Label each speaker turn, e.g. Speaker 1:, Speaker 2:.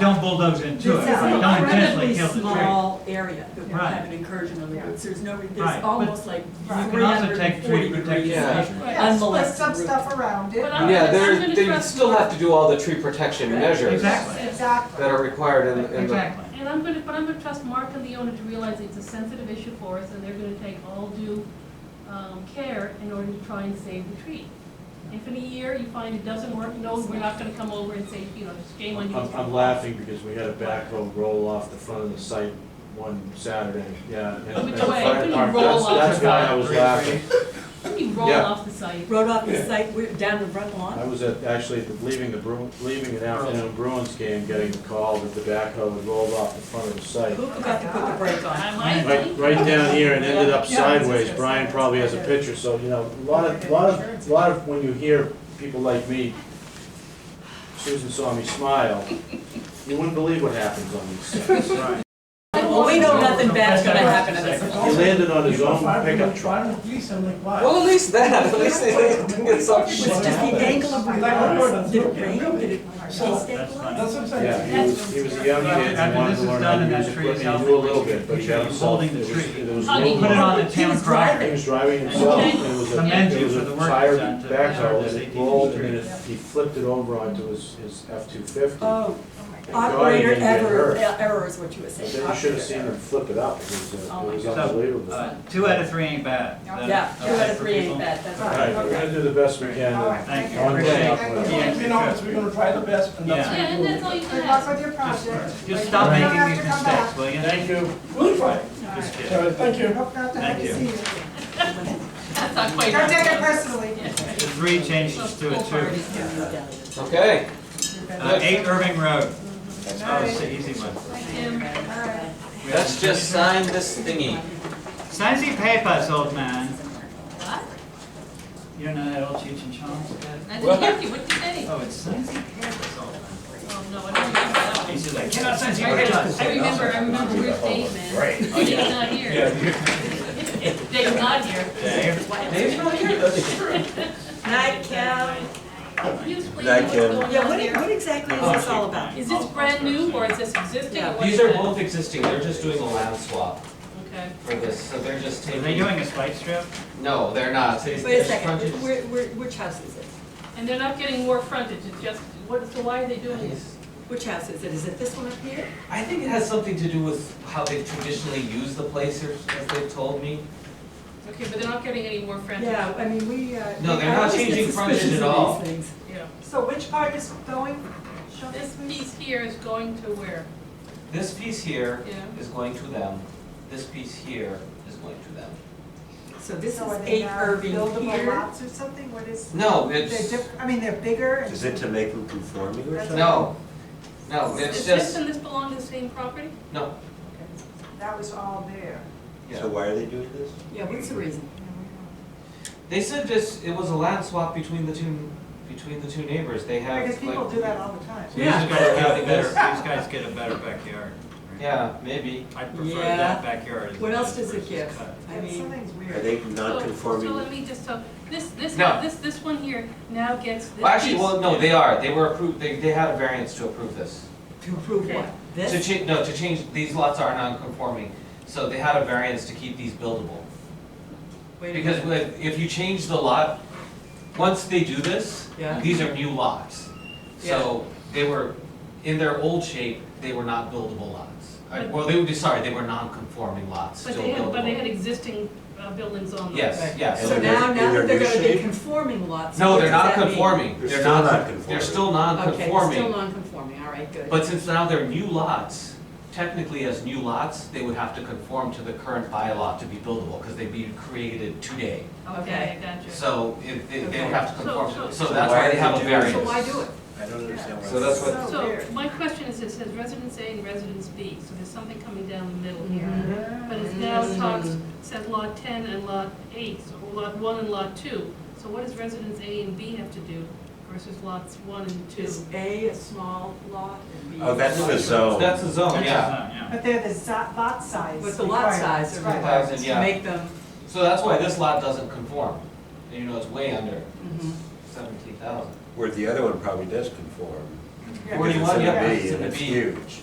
Speaker 1: Don't bulldoze into it,
Speaker 2: This is
Speaker 1: right?
Speaker 2: an
Speaker 1: don't intentionally
Speaker 2: incredibly
Speaker 1: kill the tree.
Speaker 2: small area that we
Speaker 1: Right.
Speaker 2: have an incursion on the roots, there's no,
Speaker 1: Right,
Speaker 2: there's
Speaker 1: but
Speaker 2: almost like
Speaker 1: You can also take tree
Speaker 2: 340
Speaker 1: protection
Speaker 2: degrees.
Speaker 3: Yeah.
Speaker 1: measures.
Speaker 4: Yeah, split
Speaker 2: Unmolested
Speaker 4: some
Speaker 2: root.
Speaker 4: stuff around it.
Speaker 5: But I'm-
Speaker 3: Yeah,
Speaker 5: I'm
Speaker 3: there,
Speaker 5: gonna
Speaker 3: they
Speaker 5: trust-
Speaker 3: still have to do all the tree protection
Speaker 2: Right,
Speaker 3: measures that
Speaker 1: Exactly,
Speaker 4: Exactly.
Speaker 3: are required in, in the.
Speaker 1: exactly.
Speaker 5: And I'm gonna, but I'm gonna trust Mark and the owner to realize it's a sensitive issue for us, and they're gonna take all due, um, care in order to try and save the tree. If in a year you find it doesn't work, no, we're not gonna come over and say, you know, shame on
Speaker 6: I'm,
Speaker 5: you.
Speaker 6: I'm laughing because we had a backhoe roll off the front of the site one Saturday, yeah. and-
Speaker 5: Which
Speaker 6: and the
Speaker 5: way?
Speaker 6: fire
Speaker 5: Couldn't
Speaker 6: department-
Speaker 5: roll
Speaker 6: that's-
Speaker 5: off
Speaker 6: That's
Speaker 5: the
Speaker 6: why I
Speaker 5: side.
Speaker 6: was laughing.
Speaker 5: Let me roll
Speaker 3: Yeah.
Speaker 5: off the site.
Speaker 2: Rode off the site, we're down the front
Speaker 6: I
Speaker 2: lawn.
Speaker 6: was at, actually at the- leaving the Bru, leaving an afternoon Bruins game, getting the call that the backhoe had rolled off the front of the site.
Speaker 2: Who forgot to put the brake on?
Speaker 5: I might
Speaker 6: Right,
Speaker 5: think,
Speaker 6: right down here and ended up
Speaker 2: Yeah, yeah,
Speaker 6: sideways. Brian probably has a picture, so, you know, a lot of, lot of, lot of, when you hear people like me, Susan saw me smile, you wouldn't believe what happens on these sites.
Speaker 1: Right.
Speaker 2: Well, we know nothing bad's gonna happen at this point.
Speaker 6: He landed on his own pickup truck.
Speaker 3: Well, at least that, at least they didn't get some
Speaker 2: It
Speaker 3: shit.
Speaker 2: was just the angle of
Speaker 7: Like, I don't
Speaker 2: roots.
Speaker 7: know,
Speaker 2: Did it
Speaker 7: that's
Speaker 2: rain,
Speaker 7: okay.
Speaker 2: did it, did it
Speaker 7: So-
Speaker 2: stabilize?
Speaker 7: That's what I'm
Speaker 6: Yeah,
Speaker 7: saying.
Speaker 6: he was, he was a young kid, and wanted to learn how to use equipment, he knew a little bit, but he got himself, it was, it was.
Speaker 5: I'll be-
Speaker 6: no
Speaker 1: Put it on
Speaker 6: longer-
Speaker 1: the town
Speaker 6: He
Speaker 1: crier.
Speaker 6: was driving himself, and it was
Speaker 1: Commend
Speaker 6: a,
Speaker 1: you
Speaker 6: it was
Speaker 1: for the
Speaker 6: a
Speaker 1: work
Speaker 6: tired
Speaker 1: done to preserve
Speaker 6: backhoe,
Speaker 1: this
Speaker 6: and it
Speaker 1: 18th
Speaker 6: rolled, and
Speaker 1: street.
Speaker 6: then it- he flipped it over onto his, his F two fifty.
Speaker 2: Oh,
Speaker 6: God, he
Speaker 2: operator
Speaker 6: didn't get
Speaker 2: error,
Speaker 6: hurt.
Speaker 2: error is what you were
Speaker 6: But
Speaker 2: saying.
Speaker 6: then you should have seen him flip it up, it was, uh,
Speaker 2: Oh
Speaker 6: it
Speaker 2: my
Speaker 6: was
Speaker 1: God.
Speaker 6: unbelievable.
Speaker 1: Uh, Two out of three ain't bad. Is that
Speaker 2: Yeah, two
Speaker 1: okay
Speaker 2: out of
Speaker 1: for
Speaker 2: three ain't
Speaker 1: people?
Speaker 2: bad, that's
Speaker 6: All
Speaker 2: right.
Speaker 6: right, we're gonna do the best we can,
Speaker 4: All right,
Speaker 6: and
Speaker 1: Thank
Speaker 4: thank
Speaker 1: you.
Speaker 4: you.
Speaker 6: one day,
Speaker 4: Thank
Speaker 6: I'll-
Speaker 4: you.
Speaker 1: Yeah.
Speaker 7: You know, it's- we're gonna try the best and that's.
Speaker 1: Yeah.
Speaker 5: yeah, and that's all you can
Speaker 4: Good
Speaker 5: ask.
Speaker 4: luck with your project.
Speaker 1: Just- Just stop
Speaker 4: Right.
Speaker 1: making
Speaker 4: You
Speaker 1: these
Speaker 4: don't have
Speaker 1: mistakes, will you?
Speaker 6: thank you.
Speaker 7: We'll try.
Speaker 4: to come back.
Speaker 1: Just
Speaker 4: All
Speaker 1: kidding.
Speaker 7: All right, thank you.
Speaker 4: right. Hope not to
Speaker 1: Thank
Speaker 4: have to see
Speaker 1: you.
Speaker 4: you again.
Speaker 5: That's not quite.
Speaker 4: Don't take it personally.
Speaker 1: The three changes to a two.
Speaker 3: Okay,
Speaker 1: Uh, Eight Irving Road.
Speaker 4: Good
Speaker 1: Oh,
Speaker 4: night.
Speaker 1: it's the easy one.
Speaker 4: All right.
Speaker 1: We have
Speaker 3: let's just sign this thingy.
Speaker 1: Sign the papers, old man. You don't know that old Cheech and Chong's bit?
Speaker 5: I didn't hear you, what did you say?
Speaker 1: Oh, it's sign the papers, old man.
Speaker 5: Oh, no, I don't remember that one.
Speaker 1: He says, I cannot sign the
Speaker 5: I
Speaker 1: papers.
Speaker 5: remember, I remember, I remember Ruth Dave, man. Oh, Dave's not here. Dave's not here.
Speaker 1: Dave?
Speaker 3: Dave's not here, that's true.
Speaker 2: Night, Cal.
Speaker 5: Can you explain
Speaker 3: That
Speaker 5: what's
Speaker 3: can-
Speaker 5: going on
Speaker 2: Yeah, what,
Speaker 5: there?
Speaker 2: what exactly is this all about?
Speaker 5: Is this brand new or is this existing or
Speaker 2: Yeah.
Speaker 5: what
Speaker 3: These
Speaker 5: is
Speaker 3: are
Speaker 5: it?
Speaker 3: both existing, they're just doing a land swap
Speaker 5: Okay.
Speaker 3: for this, so they're just
Speaker 1: Are
Speaker 3: taking.
Speaker 1: they doing a spike strip?
Speaker 3: No, they're not. They-
Speaker 2: Wait a
Speaker 3: there's
Speaker 2: second,
Speaker 3: frontage-
Speaker 2: where, where, which house is it?
Speaker 5: And they're not getting more frontage, it's just, what, so why are they doing this?
Speaker 2: Which house is it? Is it this one up here?
Speaker 3: I think it has something to do with how they traditionally use the place, as as they've told me.
Speaker 5: Okay, but they're not getting any more frontage.
Speaker 2: Yeah, I mean, we, uh.
Speaker 3: No, they're
Speaker 2: I
Speaker 3: not
Speaker 2: always get
Speaker 3: changing frontage
Speaker 2: suspicious
Speaker 3: at
Speaker 2: of
Speaker 3: all.
Speaker 2: these things.
Speaker 5: Yeah.
Speaker 4: So which part is going? Show
Speaker 5: This
Speaker 4: this, please.
Speaker 5: piece here is going to where?
Speaker 3: This piece here
Speaker 5: Yeah.
Speaker 3: is going to them, this piece here is going to them.
Speaker 2: So this is
Speaker 4: So uh, are they
Speaker 2: eight
Speaker 4: now
Speaker 2: Irving
Speaker 4: buildable
Speaker 2: here.
Speaker 4: lots or something? What is,
Speaker 3: No,
Speaker 4: they're
Speaker 3: it's,
Speaker 4: diff, I mean, they're bigger and.
Speaker 8: Is it to make them conforming or
Speaker 4: That's-
Speaker 8: something?
Speaker 3: no, no,
Speaker 5: Does
Speaker 3: it's
Speaker 5: this
Speaker 3: just,
Speaker 5: and this belong to the same property?
Speaker 3: no,
Speaker 4: That was all there.
Speaker 8: So
Speaker 3: yeah.
Speaker 8: why are they doing this?
Speaker 2: Yeah, what's the reason?
Speaker 3: They said this, it was a land swap between the two, between the two neighbors, they have like.
Speaker 4: Because people do that all the time.
Speaker 1: These guys get a better, these guys get a better backyard.
Speaker 3: Yeah, maybe.
Speaker 1: I prefer
Speaker 2: Yeah.
Speaker 1: that backyard. as
Speaker 2: What
Speaker 1: it
Speaker 2: else
Speaker 1: is
Speaker 2: does it
Speaker 1: versus
Speaker 2: give?
Speaker 1: cut.
Speaker 2: I
Speaker 4: Yeah,
Speaker 2: mean,
Speaker 4: Something's
Speaker 8: Are
Speaker 4: weird.
Speaker 8: they
Speaker 5: So- So let
Speaker 8: non-conforming?
Speaker 5: me just, so, this, this,
Speaker 3: No.
Speaker 5: this, this one here now gets this piece.
Speaker 3: Well, actually, well, no, they are, they were approved, they, they had a variance to approve this.
Speaker 2: to prove what?
Speaker 3: To
Speaker 2: This?
Speaker 3: cha, no, to change, these lots are non-conforming, so they had a variance to keep these buildable.
Speaker 2: Wait a
Speaker 3: Because
Speaker 2: minute.
Speaker 3: with- if you change the lot, once they do this,
Speaker 2: Yeah.
Speaker 3: these are new lots. So they were, in their old shape, they were not buildable lots. Uh,
Speaker 5: But-
Speaker 3: Well, they would be, sorry, they were non-conforming lots,
Speaker 5: But
Speaker 3: still
Speaker 5: they had, but they had
Speaker 3: buildable.
Speaker 5: existing uh, buildings on them.
Speaker 3: Yes,
Speaker 2: Right.
Speaker 3: yes.
Speaker 2: So
Speaker 8: they're-
Speaker 2: now, now that
Speaker 8: they're
Speaker 2: they're gonna be
Speaker 8: U-shaped?
Speaker 2: conforming lots.
Speaker 3: No,
Speaker 2: what
Speaker 3: they're
Speaker 2: does
Speaker 3: not
Speaker 2: that mean?
Speaker 3: conforming,
Speaker 8: They're
Speaker 3: they're
Speaker 8: still
Speaker 3: not,
Speaker 8: non-conforming.
Speaker 2: Okay, they're
Speaker 3: they're still
Speaker 2: still
Speaker 3: non-conforming.
Speaker 2: non-conforming, all right, good.
Speaker 3: But since now they're new lots, technically as new lots, they would have to conform to the current bylaw to be buildable, because they'd be created today.
Speaker 5: Okay, I gotcha.
Speaker 3: So if, they they
Speaker 2: Okay.
Speaker 3: would have to conform to,
Speaker 5: So-
Speaker 3: so
Speaker 5: so-
Speaker 3: that's why they have a
Speaker 8: So why
Speaker 3: variance.
Speaker 2: So why do it?
Speaker 8: I don't understand why.
Speaker 3: So that's what-
Speaker 4: So
Speaker 5: So,
Speaker 4: weird.
Speaker 5: my question is, it says residence A and residence B, so there's something coming down the middle here.
Speaker 2: Mhm.
Speaker 5: But it now
Speaker 2: Mhm.
Speaker 5: talks, said lot ten and lot eight, so lot one and lot two. So what does residence A and B have to do versus lots one and two?
Speaker 2: Is A a small lot and B?
Speaker 8: Oh, that's
Speaker 2: a
Speaker 8: the
Speaker 2: large
Speaker 8: zone.
Speaker 3: That's the zone,
Speaker 1: That's
Speaker 3: yeah.
Speaker 1: a zone,
Speaker 4: But they're the zo- lot size.
Speaker 2: But the lot
Speaker 4: requirements,
Speaker 2: size are
Speaker 4: right.
Speaker 2: required.
Speaker 3: Thousand,
Speaker 2: lot?
Speaker 3: yeah.
Speaker 2: To make them,
Speaker 3: So that's why this lot doesn't conform. And you know, it's way under
Speaker 2: mhm.
Speaker 3: seventeen thousand.
Speaker 8: Where the other one probably does conform.
Speaker 9: Yeah, 'cause it's
Speaker 4: Forty-one,
Speaker 9: in the
Speaker 4: yeah,
Speaker 9: bay
Speaker 4: it's in the
Speaker 3: It's
Speaker 4: B.
Speaker 3: huge.